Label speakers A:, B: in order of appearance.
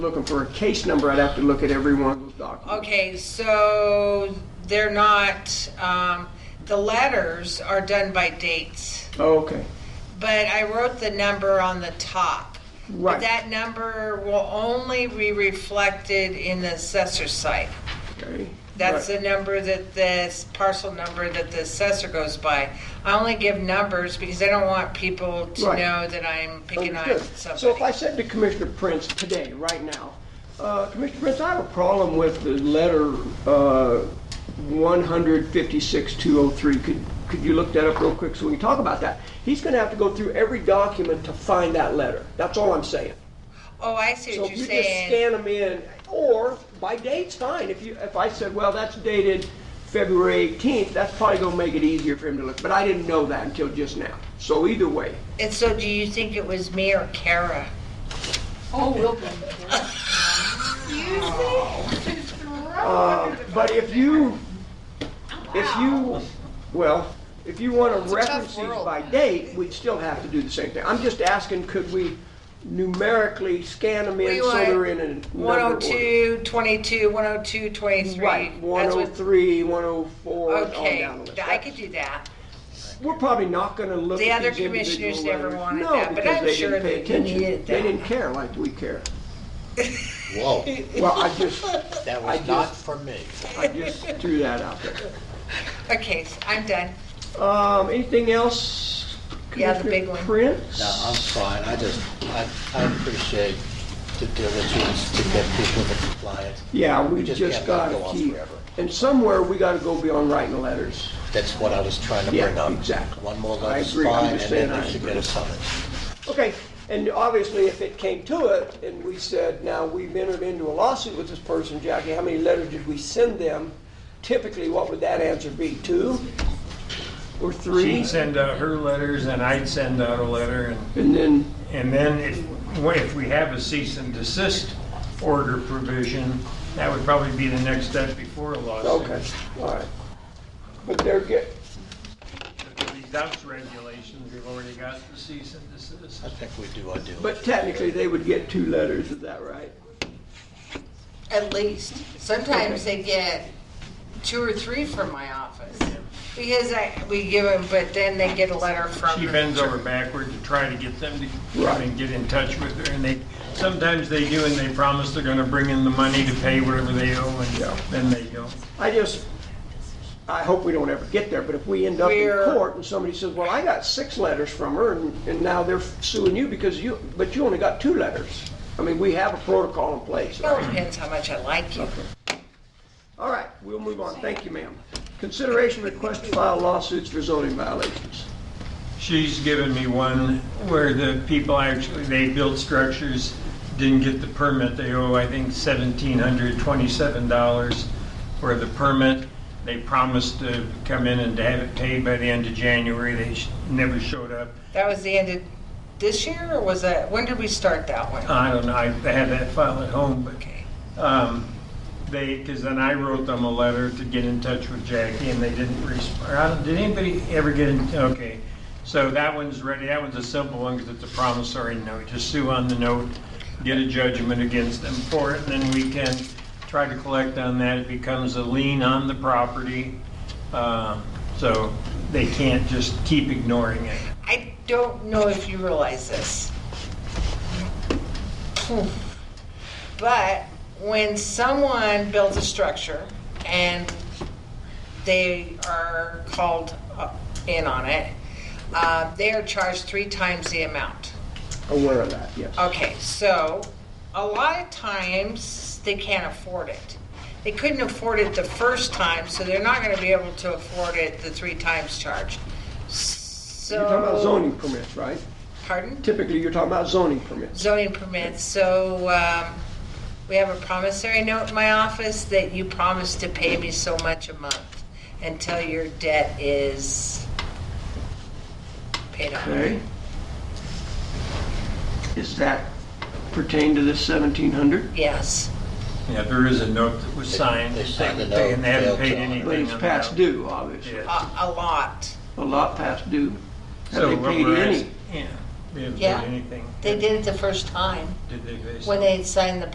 A: looking for a case number, I'd have to look at every one of those documents.
B: Okay, so they're not, um, the letters are done by dates,
A: Okay,
B: but I wrote the number on the top. But
A: Right.
B: that number will only be reflected in the assessor site.
A: okay.
B: That's
A: Right.
B: the number that this parcel number that the assessor goes by. I only give numbers because I don't want people to
A: Right.
B: know that I'm picking on
A: Understood. So if I
B: somebody.
A: said to Commissioner Prince today, right now, uh, Commissioner Prince, I have a problem with the letter uh, 156203. Could, could you look that up real quick so we can talk about that? He's going to have to go through every document to find that letter. That's all I'm saying.
B: Oh, I see
A: So
B: what
A: if
B: you're
A: you just
B: saying.
A: scan them in, or by date's fine. If you, if I said, well, that's dated February 18th, that's probably gonna make it easier for him to look. But I didn't know that until just now. So either way,
B: And so do you think it was me or Kara?
C: Oh, we'll blame
A: uh, but if you, if you, well, if you wanna reference these
C: world.
A: by date, we'd still have to do the same thing. I'm just asking, could we numerically scan them in
B: We
A: so
B: want
A: they're in a number order?
B: 102, 22, 102, 23.
A: Right,
B: That's what-
A: 103, 104, on
B: Okay,
A: down the list.
B: I could do that.
A: We're probably not gonna look
B: The
A: at
B: other
A: these individual
B: commissioners never
A: letters.
B: wanted that, but I'm sure
A: No, because they didn't pay
B: that they
A: attention.
B: needed
A: They
B: that.
A: didn't care like we care.
D: Whoa,
A: Well, I just,
D: that
A: I
D: was
A: just-
D: not for me.
A: I just threw that out there.
B: Okay, so I'm done.
A: Um, anything else?
B: Yeah, the big
A: Commissioner
B: one.
A: Prince?
D: No, I'm fine, I just, I, I appreciate the diligence to get people to comply.
A: Yeah, we
D: We just
A: just
D: can't let
A: gotta
D: it go on
A: keep,
D: forever.
A: and somewhere we gotta go beyond writing letters.
D: That's what I was trying to
A: Yeah,
D: bring up.
A: exactly.
D: One more
A: I
D: letter's
A: agree. I'm
D: fine, and
A: just saying
D: then
A: I
D: we should get
A: agree.
D: a summons.
A: Okay, and obviously if it came to it and we said, now we've entered into a lawsuit with this person, Jackie, how many letters did we send them? Typically, what would that answer be? Two or three?
E: She'd send out her letters and I'd send out a letter and,
A: And then,
E: and then if, if we have a cease and desist order provision, that would probably be the next step before a lawsuit.
A: okay, all right. But they're get,
E: These outs regulations, we've already got the cease and desist.
D: I think we do our due.
A: but technically, they would get two letters, is that right?
B: At least. Sometimes they get two or three from my office. Because I, we give them, but then they get a letter from.
E: She bends over backward to try to get them to come
A: Right.
E: and get in touch with her and they, sometimes they do and they promise they're gonna bring in the money to pay whatever they owe
A: Yeah.
E: and then they don't.
A: I just, I hope we don't ever get there, but if we end up in
B: We're-
A: court and somebody says, well, I got six letters from her and, and now they're suing you because you, but you only got two letters. I mean, we have a protocol in place.
B: Well, it depends how much I like you.
A: All right, we'll move on. Thank you, ma'am. Consideration request to file lawsuits for zoning violations.
E: She's given me one where the people actually, they built structures, didn't get the permit, they owe, I think, $1,727 for the permit. They promised to come in and to have it paid by the end of January, they sh- never showed up.
B: That was the end of this year or was that, when did we start that one?
E: I don't know, I I had that file at home, but um, they, because then I wrote them a letter to get in touch with Jackie, and they didn't respond. Did anybody ever get in, okay. So that one's ready, that one's a simple one, because it's a promissory note. Just sue on the note, get a judgment against them for it, and then we can try to collect on that. It becomes a lien on the property, um, so they can't just keep ignoring it.
B: I don't know if you realize this. But when someone builds a structure and they are called up in on it, uh, they are charged three times the amount.
A: Aware of that, yes.
B: Okay, so a lot of times they can't afford it. They couldn't afford it the first time, so they're not going to be able to afford it the three times charge. So
A: You're talking about zoning permits, right?
B: Pardon?
A: Typically, you're talking about zoning permits.
B: Zoning permits, so, um, we have a promissory note in my office that you promise to pay me so much a month until your debt is paid off.
A: Okay? Is that pertain to this 1700?
B: Yes,
E: Yeah, there is a note that was signed.
D: They signed the
E: they- And they
D: note,
E: haven't
D: failed
E: paid
D: to honor it.
E: anything.
A: But it's
E: on
A: past
E: that.
A: due, obviously.
E: Yeah.
B: a, a lot.
A: A lot past due. Have
E: So
A: they
E: what
A: paid
E: we're
A: any?
E: ask- Yeah, they haven't
B: Yeah.
E: paid anything.
B: They did it the first time,
E: Did they?
B: when they signed the